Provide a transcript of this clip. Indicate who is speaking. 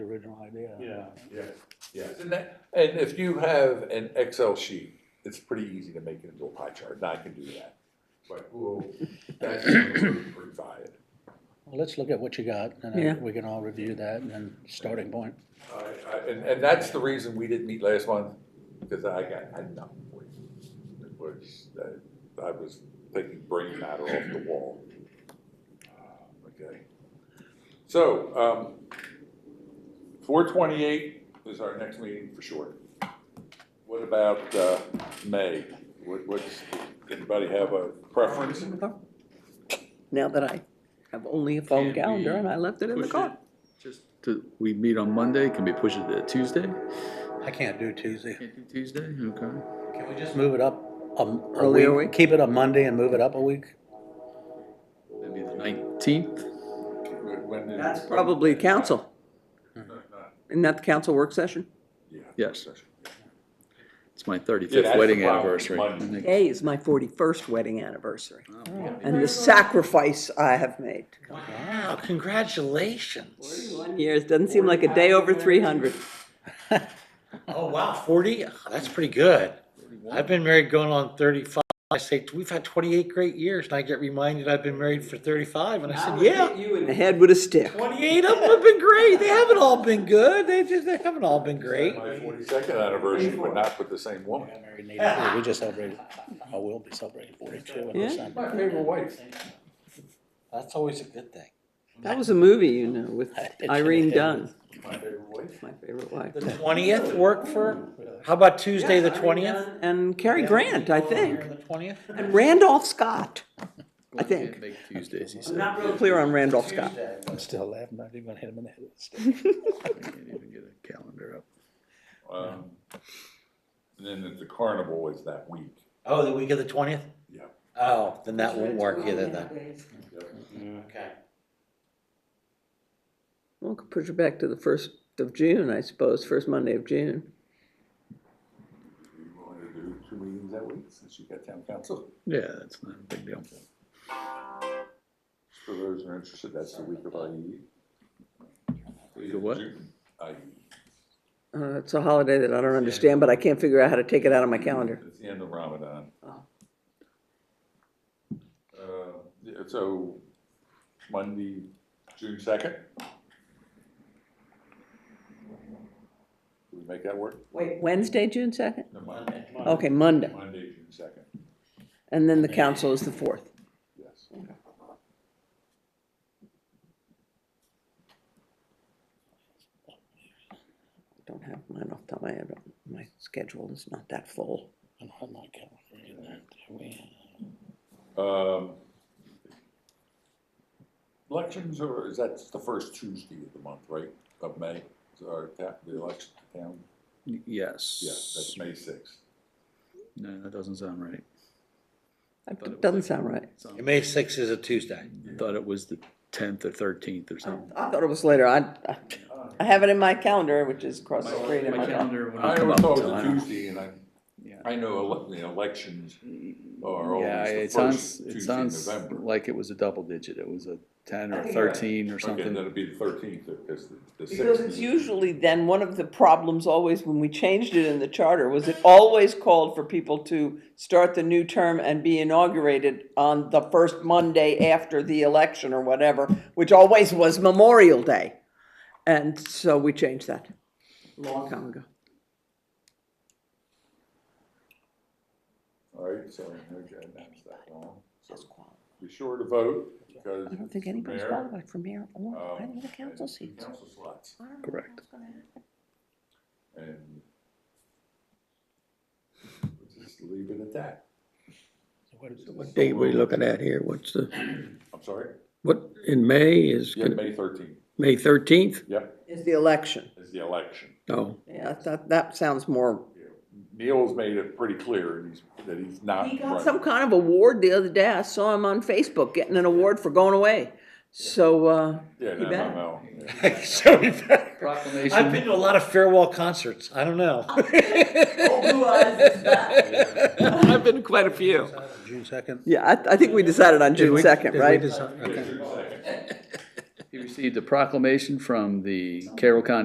Speaker 1: original idea.
Speaker 2: Yeah.
Speaker 3: Yeah, yeah.
Speaker 4: And that- and if you have an Excel sheet, it's pretty easy to make it into a pie chart, and I can do that. But, well, that's pretty valid.
Speaker 1: Well, let's look at what you got, and
Speaker 5: Yeah.
Speaker 1: then we can all review that, and then starting point.
Speaker 4: I- I- And, and that's the reason we didn't meet last month, because I got, I had nothing for you. It was, uh, I was taking brain matter off the wall. Uh, Okay. So, um, four twenty-eight is our next meeting for sure. What about, uh, May? What, what's, anybody have a preference?
Speaker 5: Now that I have only a phone calendar and I left it in the car.
Speaker 6: Just to, we meet on Monday, can we push it to Tuesday?
Speaker 1: I can't do Tuesday.
Speaker 6: Can't do Tuesday, okay.
Speaker 1: Can we just move it up a, a
Speaker 5: Earlier
Speaker 1: week?
Speaker 5: week?
Speaker 1: Keep it a Monday and move it up a week?
Speaker 6: Maybe the nineteenth?
Speaker 4: When did-
Speaker 5: That's probably council. Isn't that the council work session?
Speaker 4: Yeah.
Speaker 6: Yes. It's my
Speaker 4: Yeah,
Speaker 6: thirty-fifth
Speaker 4: that's the
Speaker 6: wedding
Speaker 4: problem,
Speaker 6: anniversary.
Speaker 4: Monday.
Speaker 6: I think.
Speaker 5: Today is my forty-first wedding anniversary,
Speaker 6: Oh,
Speaker 5: and the sacrifice I have made.
Speaker 7: Wow, congratulations.
Speaker 5: Forty-one years, doesn't seem like a day over three hundred.
Speaker 7: Oh, wow, 40? Oh, That's pretty good. I've been married going on 35. I say, we've had 28 great years, and I get reminded I've been married for 35, and I said, yeah.
Speaker 5: You in the head with a stick.
Speaker 7: 28 of them have been great. They haven't all been good. They just, they haven't all been great.
Speaker 4: My forty-second anniversary, but not with the same woman.
Speaker 1: I got married in 83. We just celebrated, I will be celebrating forty-two in
Speaker 5: Yeah.
Speaker 1: December.
Speaker 4: My favorite wife.
Speaker 7: That's always a good thing.
Speaker 5: That was a movie, you know, with
Speaker 1: I did
Speaker 5: Irene
Speaker 1: see that.
Speaker 5: Dunn,
Speaker 4: My favorite wife.
Speaker 5: my favorite wife.
Speaker 7: The 20th work for, how about Tuesday, the 20th?
Speaker 5: And Cary Grant, I think,
Speaker 7: The 20th?
Speaker 5: and Randolph Scott. I
Speaker 6: Glenn can't
Speaker 5: think.
Speaker 6: Make Tuesdays, he
Speaker 5: I'm
Speaker 6: said.
Speaker 5: not real clear on Randolph Scott.
Speaker 1: I'm still laughing, I didn't even hit him in the head with a stick.
Speaker 6: Can't even get a calendar up.
Speaker 4: Um, and then at the carnival is that week.
Speaker 7: Oh, the week of the 20th?
Speaker 4: Yeah.
Speaker 7: Oh, then that won't work either then. Okay.
Speaker 5: Well, could push it back to the first of June, I suppose, first Monday of June.
Speaker 4: You want to do two meetings that week since you got town council?
Speaker 6: Yeah, that's not a big deal.
Speaker 4: For those who are interested, that's the week of E. IE.
Speaker 6: Week of what?
Speaker 4: IE.
Speaker 5: Uh, it's a holiday that I don't understand, but I can't figure out how to take it out of my calendar.
Speaker 4: It's the end of Ramadan.
Speaker 6: Uh-huh.
Speaker 5: Oh.
Speaker 4: Uh, yeah, so Monday, June second? Do we make that work?
Speaker 5: Wait, Wednesday, June second?
Speaker 4: No, Monday.
Speaker 5: Okay, Monday,
Speaker 4: Monday, June second,
Speaker 5: and then the council is the fourth.
Speaker 4: yes.
Speaker 5: Don't have mine off the top of my head, my schedule is not that full.
Speaker 1: I don't have my calendar in there, do we?
Speaker 4: Um, Elections are, is that the first Tuesday of the month, right, of May, is our ta- the election to town?
Speaker 6: Yes.
Speaker 4: Yeah, that's May sixth.
Speaker 6: No, that doesn't sound right.
Speaker 5: That doesn't sound right.
Speaker 6: Sound-
Speaker 7: May 6th is a Tuesday.
Speaker 6: Thought it was the tenth or thirteenth or
Speaker 5: I
Speaker 6: something.
Speaker 5: I thought it was later, I, I- I have it in my calendar, which is across the
Speaker 6: My
Speaker 5: street in my.
Speaker 6: calendar when I
Speaker 4: I
Speaker 6: come
Speaker 4: always
Speaker 6: up,
Speaker 4: thought it
Speaker 6: so I
Speaker 4: was a
Speaker 6: don't-
Speaker 4: Tuesday, and I,
Speaker 6: Yeah. Mm,
Speaker 4: I know ele- the elections are
Speaker 6: Yeah,
Speaker 4: always the
Speaker 6: it
Speaker 4: first
Speaker 6: sounds, it
Speaker 4: Tuesday in
Speaker 6: sounds
Speaker 4: November.
Speaker 6: like it was a double digit, it was a ten
Speaker 5: I
Speaker 6: or
Speaker 5: think you're right.
Speaker 6: thirteen or
Speaker 4: Okay, then
Speaker 6: something.
Speaker 4: it'd be the thirteenth, because the sixth.
Speaker 5: Because it's usually then, one of the problems always when we changed it in the charter was it always called for people to start the new term and be inaugurated on the first Monday after the election or whatever, which always was Memorial Day. And so we changed that a long time ago.
Speaker 4: All right, so, okay, that's that wrong. So Be sure to vote, because.
Speaker 5: I don't
Speaker 4: it's
Speaker 5: think
Speaker 4: the
Speaker 5: anybody's
Speaker 4: mayor,
Speaker 5: qualified for mayor Oh, or
Speaker 4: um,
Speaker 5: any of the council
Speaker 4: and
Speaker 5: seats.
Speaker 4: Council slots.
Speaker 5: I don't know
Speaker 6: Correct.
Speaker 5: what's gonna happen.
Speaker 4: And we'll just leave it at that.
Speaker 8: What date we looking at here? What's the,
Speaker 4: I'm sorry?
Speaker 8: what, in May is
Speaker 4: Yeah, May thirteenth.
Speaker 8: May thirteenth?
Speaker 4: Yep,
Speaker 5: It's the election.
Speaker 4: is the election.
Speaker 8: No,
Speaker 5: Yeah, that, that sounds more.
Speaker 4: Neil's made it pretty clear and he's, that he's not
Speaker 5: He got some
Speaker 4: running.
Speaker 5: kind of award the other day. I saw him on Facebook getting an award for going away. So, uh,
Speaker 4: Yeah,
Speaker 5: he
Speaker 4: no,
Speaker 5: better.
Speaker 4: no, no. yeah.
Speaker 7: So we better- I've
Speaker 6: Proclamation,
Speaker 7: been to a lot of farewell concerts. I don't know.
Speaker 5: I've been to quite a few.
Speaker 1: June second?
Speaker 5: Yeah, I, I think we decided on June second, right?
Speaker 4: Just a second.
Speaker 6: he received a proclamation from the Carroll County